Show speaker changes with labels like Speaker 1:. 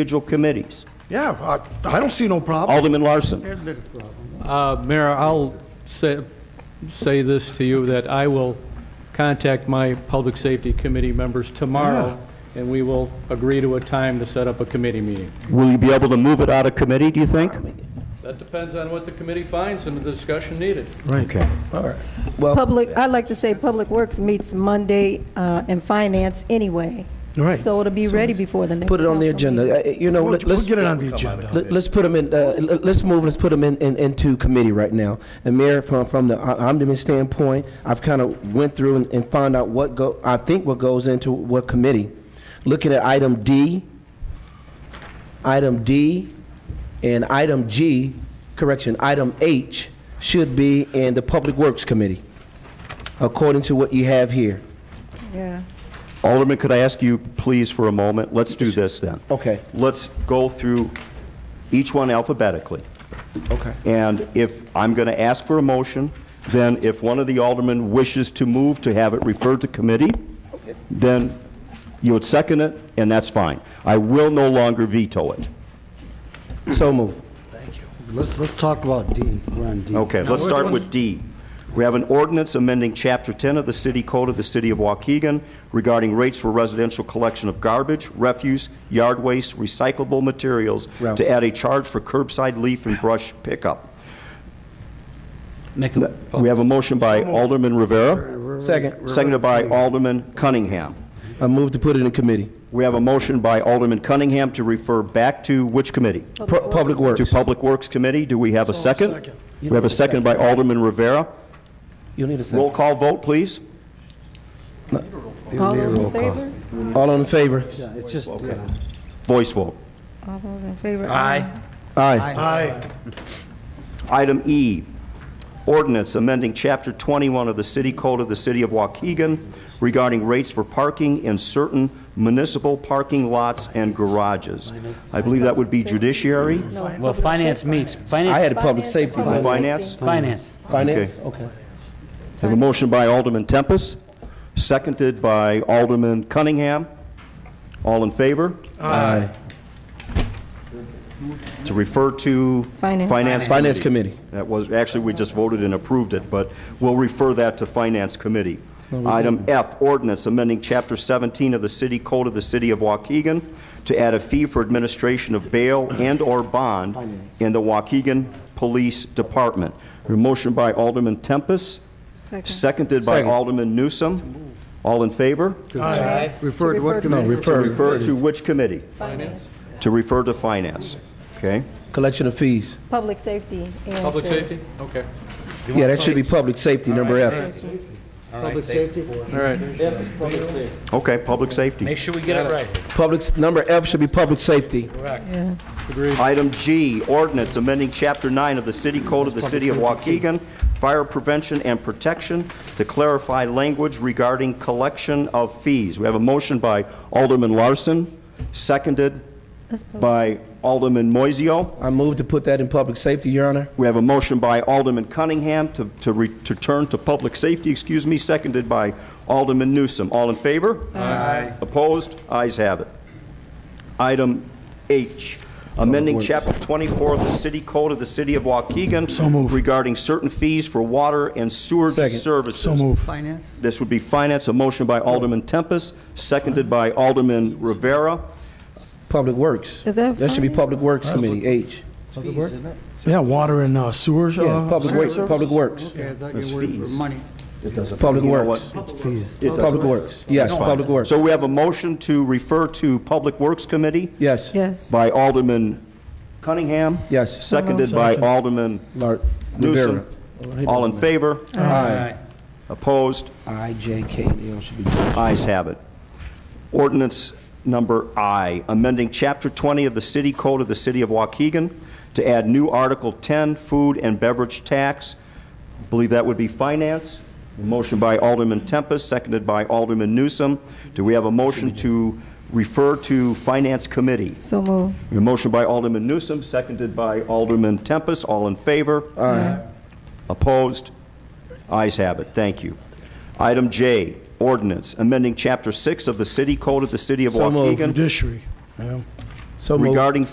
Speaker 1: individual committees.
Speaker 2: Yeah, I, I don't see no problem.
Speaker 1: Alderman Larson,
Speaker 3: Uh, Mayor, I'll say, say this to you, that I will contact my Public Safety Committee members tomorrow, and we will agree to a time to set up a committee meeting.
Speaker 1: will you be able to move it out of committee, do you think?
Speaker 3: That depends on what the committee finds and the discussion needed.
Speaker 1: Okay. All right.
Speaker 4: Oh.
Speaker 1: Well,
Speaker 5: Public, I'd like to say Public Works meets Monday uh, and Finance anyway.
Speaker 2: Right.
Speaker 5: So it'll be ready before the next.
Speaker 4: Put it on the
Speaker 5: council meeting.
Speaker 4: agenda. Uh, You know,
Speaker 2: We'll
Speaker 4: let-
Speaker 2: we'll
Speaker 4: let's,
Speaker 2: get it on the agenda.
Speaker 4: let- let's put them in, uh, let- let's move, let's put them in, in- into committee right now. And Mayor, from, from the o- ombudsman standpoint, I've kind of went through and, and found out what go, I think what goes into what committee. Looking at item D, item D, and item G, correction, item H should be in the Public Works Committee, according to what you have here.
Speaker 5: Yeah.
Speaker 1: Alderman, could I ask you, please, for a moment? Let's do this, then.
Speaker 4: Okay.
Speaker 1: Let's go through each one alphabetically.
Speaker 4: Okay.
Speaker 1: And if, I'm going to ask for a motion, then if one of the aldermen wishes to move to have it referred to committee, then you would second it, and that's fine. I will no longer veto it.
Speaker 4: So move.
Speaker 6: Let's, let's talk about D. We're on D.
Speaker 1: Okay, let's start with D. We have an ordinance amending Chapter 10 of the City Code of the City of Waukegan regarding rates for residential collection of garbage, refuse, yard waste, recyclable materials,
Speaker 4: Ralph.
Speaker 1: to add a charge for curbside leaf and brush pickup.
Speaker 3: Make a...
Speaker 1: We have a motion by Alderman Rivera,
Speaker 4: Second,
Speaker 1: seconded by Alderman Cunningham.
Speaker 4: I move to put it in committee.
Speaker 1: We have a motion by Alderman Cunningham to refer back to which committee?
Speaker 4: Pu- Public Works.
Speaker 1: To Public Works Committee. Do we have a second?
Speaker 2: second.
Speaker 1: We have a second by Alderman Rivera.
Speaker 4: You need a second.
Speaker 1: Roll call vote, please.
Speaker 5: All those in favor?
Speaker 4: All in favor?
Speaker 6: Yeah, It's just, yeah.
Speaker 1: Voice vote.
Speaker 5: All those in favor? Aye.
Speaker 4: Aye.
Speaker 2: Aye.
Speaker 1: Item E, ordinance amending Chapter 21 of the City Code of the City of Waukegan regarding rates for parking in certain municipal parking lots and garages. I believe that would be judiciary,
Speaker 7: Well, finance meets,
Speaker 4: I
Speaker 7: finance,
Speaker 4: had a public safety.
Speaker 1: finance.
Speaker 5: Finance.
Speaker 7: finance.
Speaker 4: Finance? Okay.
Speaker 1: I have a motion by Alderman Tempest, seconded by Alderman Cunningham. All in favor?
Speaker 4: Aye.
Speaker 1: To refer to?
Speaker 5: Finance.
Speaker 4: Finance Committee.
Speaker 1: That was, actually, we just voted and approved it, but we'll refer that to Finance Committee. Item F, ordinance amending Chapter 17 of the City Code of the City of Waukegan to add a fee for administration of bail and/or bond in the Waukegan Police Department. A motion by Alderman Tempest,
Speaker 5: Second.
Speaker 1: seconded by
Speaker 4: Second.
Speaker 1: Alderman Newsom. All in favor?
Speaker 6: Refer to
Speaker 5: Refer
Speaker 6: what
Speaker 5: to
Speaker 6: committee?
Speaker 4: Refer.
Speaker 1: Refer to which committee? Finance. To refer to Finance, okay?
Speaker 4: Collection of fees.
Speaker 5: Public safety. Ann
Speaker 3: Public
Speaker 5: says.
Speaker 3: safety? Okay.
Speaker 4: Yeah, that should be public safety, number F.
Speaker 6: Public safety?
Speaker 3: All right.
Speaker 1: Okay, Public Safety.
Speaker 7: Make sure we get it right.
Speaker 4: Public, s- number F should be public safety.
Speaker 5: Yeah.
Speaker 1: Item G, ordinance amending Chapter 9 of the City Code of the City of Waukegan, Fire Prevention and Protection, to clarify language regarding collection of fees. We have a motion by Alderman Larson, seconded
Speaker 5: That's public.
Speaker 1: by Alderman Moiseo.
Speaker 4: I move to put that in public safety, Your Honor.
Speaker 1: We have a motion by Alderman Cunningham to to re- to turn to public safety, excuse me, seconded by Alderman Newsom. All in favor? Aye. Opposed? Ayes have it. Item H, amending Chapter 24 of the City Code of the City of Waukegan regarding certain fees for water and sewer
Speaker 4: Second.
Speaker 1: services.
Speaker 2: So move.
Speaker 8: Finance?
Speaker 1: This would be finance, a motion by Alderman Tempest, seconded by Alderman Rivera.
Speaker 4: Public Works.
Speaker 5: Is that
Speaker 4: That should be
Speaker 5: finance?
Speaker 4: Public Works Committee, H.
Speaker 2: Yeah, water and uh, sewers.
Speaker 4: Yeah,
Speaker 2: uh,
Speaker 4: Public Works,
Speaker 2: service.
Speaker 4: Public Works.
Speaker 8: Okay, I thought you were for money.
Speaker 4: Public
Speaker 1: You know
Speaker 4: Works.
Speaker 1: what? It doesn't-
Speaker 4: Public Works. Yes, Public Works.
Speaker 1: So we have a motion to refer to Public Works Committee.
Speaker 4: Yes.
Speaker 5: Yes.
Speaker 1: by Alderman Cunningham.
Speaker 4: Yes.
Speaker 1: Seconded by Alderman
Speaker 4: Lar-
Speaker 1: Newsom.
Speaker 4: Rivera.
Speaker 1: All in favor?
Speaker 4: Aye.
Speaker 1: Opposed?
Speaker 4: I, J, K, and L should be.
Speaker 1: Ayes have it. Ordinance number I, amending Chapter 20 of the City Code of the City of Waukegan to add new Article 10, Food and Beverage Tax. Believe that would be Finance. A Motion by Alderman Tempest, seconded by Alderman Newsom. Do we have a motion to refer to Finance Committee?
Speaker 5: So move.
Speaker 1: A motion by Alderman Newsom, seconded by Alderman Tempest. All in favor? Aye. Opposed? Ayes have it. Thank you. Item J, ordinance amending Chapter 6 of the City Code of the City of
Speaker 4: So moved.
Speaker 1: Waukegan.
Speaker 2: Judiciary. yeah.
Speaker 4: So moved.
Speaker 1: regarding